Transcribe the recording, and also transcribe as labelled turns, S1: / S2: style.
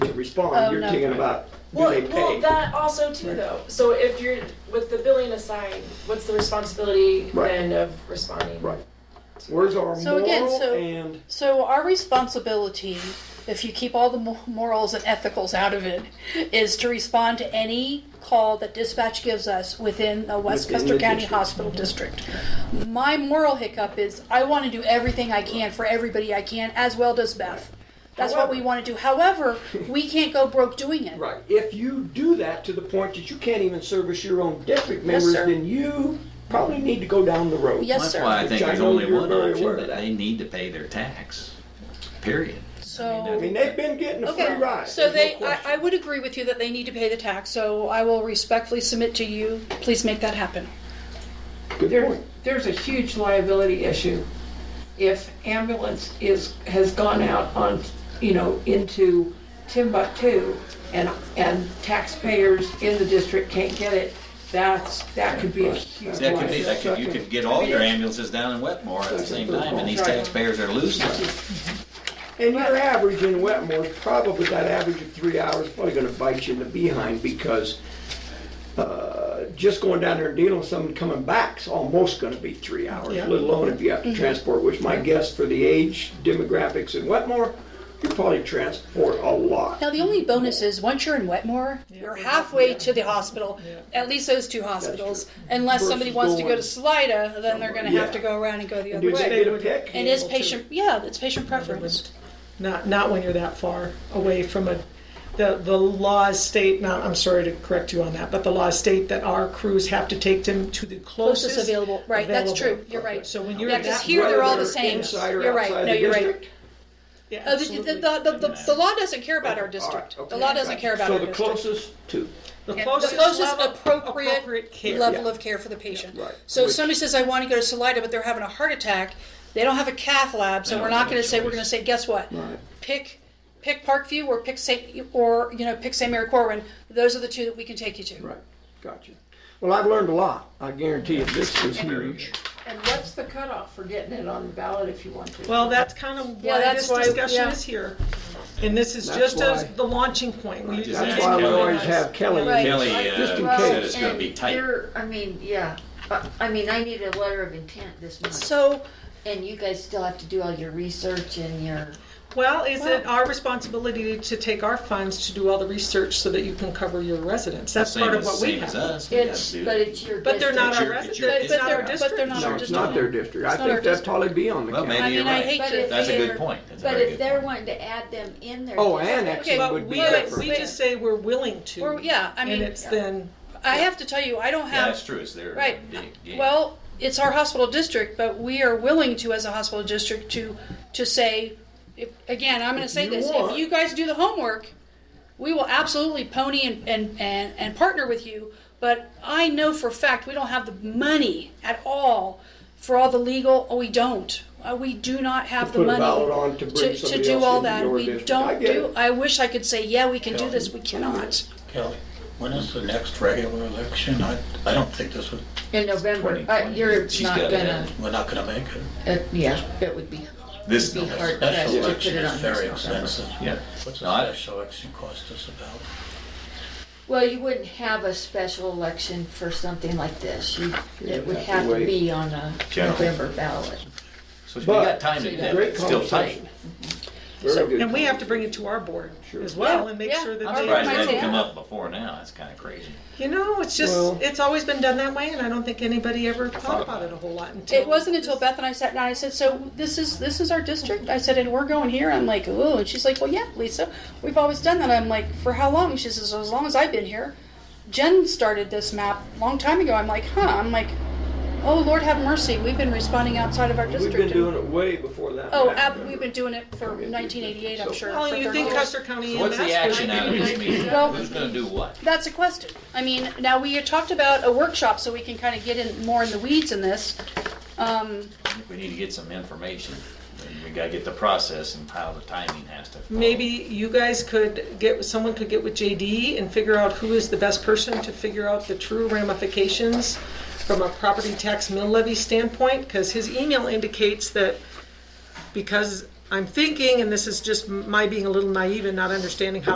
S1: Oh,
S2: respond, you're
S1: no.
S2: thinking about, do
S3: Well,
S2: they
S3: well,
S2: pay?
S3: that also too though, so if you're, with the billing assigned, what's the responsibility
S2: Right.
S3: then of responding?
S2: Right. Where's our
S1: So again,
S2: moral
S1: so-
S2: and,
S1: So our responsibility, if you keep all the mo- morals and ethicals out of it, is to respond to any call that dispatch gives us within the Westchester
S2: the
S1: County
S2: district.
S1: Hospital District. My moral hiccup is I want to do everything I can for everybody I can, as well does Beth. That's what we
S2: However-
S1: want to do. However, we can't go broke doing it.
S2: right, if you do that to the point that you can't even service your own district members,
S1: sir.
S2: then you probably need to go down the road.
S1: Yes,
S4: That's
S1: sir.
S4: why I
S2: Which
S4: think
S2: I
S4: there's
S2: know
S4: only
S2: you're
S4: one
S2: very aware
S4: option,
S2: of
S4: that
S2: that.
S4: they need to pay their tax, period.
S1: So.
S2: I mean, they've been getting a free
S1: Okay,
S2: ride.
S1: so
S2: there's no
S1: they, I,
S2: question.
S1: I would agree with you that they need to pay the tax, so I will respectfully submit to you, please make that happen.
S2: Good
S5: There,
S2: point.
S5: there's a huge liability issue. If ambulance is, has gone out on, you know, into Timbuktu and, and taxpayers in the district can't get it, that's, that could be a huge
S4: That could be,
S5: liability.
S4: that could, you could get all your ambulances down in Wetmore at the same time, and these taxpayers are losing.
S2: And your average in Wetmore, is probably that average of three hours, probably gonna bite you in the behind because uh, just going down there and dealing with someone coming back's almost gonna be three hours, let alone if you have to transport, which my guess for the age demographics in Wetmore, you probably transport a lot.
S1: Now, the only bonus is once you're in Wetmore, you're halfway to the hospital, at least those two hospitals. Unless somebody
S2: Versus
S1: wants to go
S2: going
S1: to Salida, then they're gonna
S2: somewhere.
S1: have to
S2: Yeah.
S1: go around and go the other
S2: Do they
S1: way.
S2: get a pick?
S1: And is patient, yeah, it's patient preference.
S6: Not, not when you're that far away from a, the, the laws state, not, I'm sorry to correct you on that, but the laws state that our crews have to take them to the closest.
S1: Closest available, right, that's
S6: available.
S1: true, you're right.
S6: So when you're
S1: Yeah,
S6: at
S1: 'cause
S6: that
S1: here they're all the
S2: Whether
S1: same.
S2: inside or
S1: You're right.
S2: outside
S1: No,
S2: the
S1: you're right.
S2: district?
S6: Yeah,
S1: Uh, the, the,
S6: absolutely.
S1: the, the, the law doesn't care about our
S2: All right,
S1: district.
S2: okay.
S1: The law doesn't care about our
S2: So the
S1: district.
S2: closest two.
S6: The
S1: The
S6: closest
S1: closest
S6: level-
S1: appropriate
S6: appropriate care.
S1: level of care for the patient.
S2: Right.
S1: So if
S2: Which-
S1: somebody says, I want to go to Salida, but they're having a heart attack, they don't have a cath lab, so
S4: They
S1: we're
S4: don't
S1: not
S4: have
S1: going
S4: a
S1: to say, we're
S4: choice.
S1: going to say, guess what?
S2: Right.
S1: Pick, pick Parkview or pick St., or, you know, pick St. Mary Corwin. Those are the two that we can take you to.
S2: Right, gotcha. Well, I've learned a lot. I guarantee you, this is huge.
S5: And what's the cutoff for getting it on the ballot if you want to?
S6: Well, that's kind of
S1: Yeah,
S6: why
S1: that's
S6: this
S1: why-
S6: discussion
S1: yeah.
S6: is here. And this is
S2: That's
S6: just as
S2: why-
S6: the launching point. We-
S4: Just
S2: That's
S4: ask
S2: why we
S4: Kelly.
S2: always have Kelly in
S1: Right.
S2: here.
S4: Kelly, uh,
S2: Just in
S4: said
S2: case.
S4: it's gonna be
S7: and
S4: tight.
S7: you're- I mean, yeah, I, I mean, I need a letter of intent this month,
S1: So,
S7: and you guys still have to do all your research and your,
S6: Well, is it our responsibility to take our funds to do all the research so that you can cover your residents? That's
S4: Same
S6: part of
S4: as,
S6: what we
S4: same as
S6: have.
S4: us. we gotta
S7: it's,
S4: do
S7: but
S4: it.
S7: it's your district.
S6: But they're not our
S4: It's your-
S6: residents,
S4: it's
S6: it's
S4: your
S6: not our
S1: district. But
S6: district.
S1: they're not
S2: No,
S1: our
S2: it's not their district. I
S1: It's not our
S2: think that'd
S1: district.
S2: probably be on the
S4: Well,
S2: county.
S1: I
S4: maybe you're
S1: mean, I
S4: right.
S1: hate
S7: But
S1: to.
S7: if
S4: That's a
S7: they're-
S4: good point. That's a
S7: But
S4: very
S7: if
S4: good
S7: they're
S4: point.
S7: wanting to add them in their
S2: Oh,
S7: district-
S2: annexing
S1: Okay,
S2: would
S6: But
S2: be
S6: we,
S2: different.
S6: we just say we're willing to.
S1: or, yeah, I
S6: And
S1: mean,
S6: it's then,
S1: I have to tell you, I don't
S4: Yeah,
S1: have
S4: that's true, it's their.
S1: Right.
S4: big game.
S1: Well, it's our hospital district, but we are willing to, as a hospital district, to, to say, if, again, I'm gonna say
S2: you
S1: this,
S2: want-
S1: if you guys do the homework, we will absolutely pony and, and, and, and partner with you, but I know for a fact, we don't have the money at all for all the legal, oh, we don't. Uh, we do not have
S2: To
S1: the
S2: put a
S1: money.
S2: ballot on to bring
S1: to
S2: somebody
S1: do
S2: else
S1: all
S2: into
S1: that.
S2: your
S1: We
S2: district.
S1: don't
S2: I get
S1: do-
S2: it.
S1: I wish I could say, yeah, we can do this, we cannot.
S8: Kelly, when is the next regular election? I, I don't think this would,
S7: In November, uh,
S4: 2020.
S7: you're
S4: She's
S7: not
S4: got it
S7: gonna,
S8: we're not gonna make it.
S7: uh, yeah, it would be,
S4: This,
S7: be hard pressed
S8: Special
S7: to put
S8: election
S7: it on
S8: is
S7: this
S8: very
S7: November.
S8: expensive.
S4: yeah.
S8: What's
S4: No, I-
S8: a special election cost us about?
S7: Well, you wouldn't have a special election for something like this, you, it would
S2: have to
S7: have to
S2: wait.
S7: be on a
S4: General.
S7: November ballot.
S4: So we
S2: But-
S4: got time to do that,
S2: Great
S4: it's still tight.
S2: conversation. Very good.
S6: and we have to bring it to our board as
S1: Yeah,
S6: well and make
S1: yeah.
S6: sure
S1: I'm
S6: that
S4: Surprised it
S6: they,
S1: surprised.
S4: hasn't come up before now, that's kinda crazy.
S6: you know, it's
S2: Well-
S6: just, it's always been done that way and I don't think anybody ever thought about it a whole lot until.
S1: It wasn't until Beth and I sat down. I said, "So this is this is our district." I said, "And we're going here." I'm like, "Ooh," and she's like, "Well, yeah, Lisa, we've always done that." I'm like, "For how long?" She says, "As long as I've been here." Jen started this map a long time ago. I'm like, "Huh?" I'm like, "Oh Lord, have mercy. We've been responding outside of our
S2: We've
S1: district."
S2: been doing it way before that.
S1: oh,
S2: happened.
S1: ab- we've been doing it for 1988. I'm sure.
S6: Well,
S1: for
S6: you
S1: 30
S6: think
S1: years.
S6: Custer County
S4: So
S6: EMS.
S4: what's the action
S6: would-
S4: out of this meeting?
S1: Well-
S4: Who's gonna do what?
S1: That's a question. I mean, now we had talked about a workshop, so we can kind of get in more in the weeds in this. Um,
S4: We need to get some information, and we gotta get the process and how the timing has to. follow.
S6: Maybe you guys could get, someone could get with JD and figure out who is the best person to figure out the true ramifications from a property tax mill levy standpoint, because his email indicates that because I'm thinking, and this is just my being a little naive and not understanding how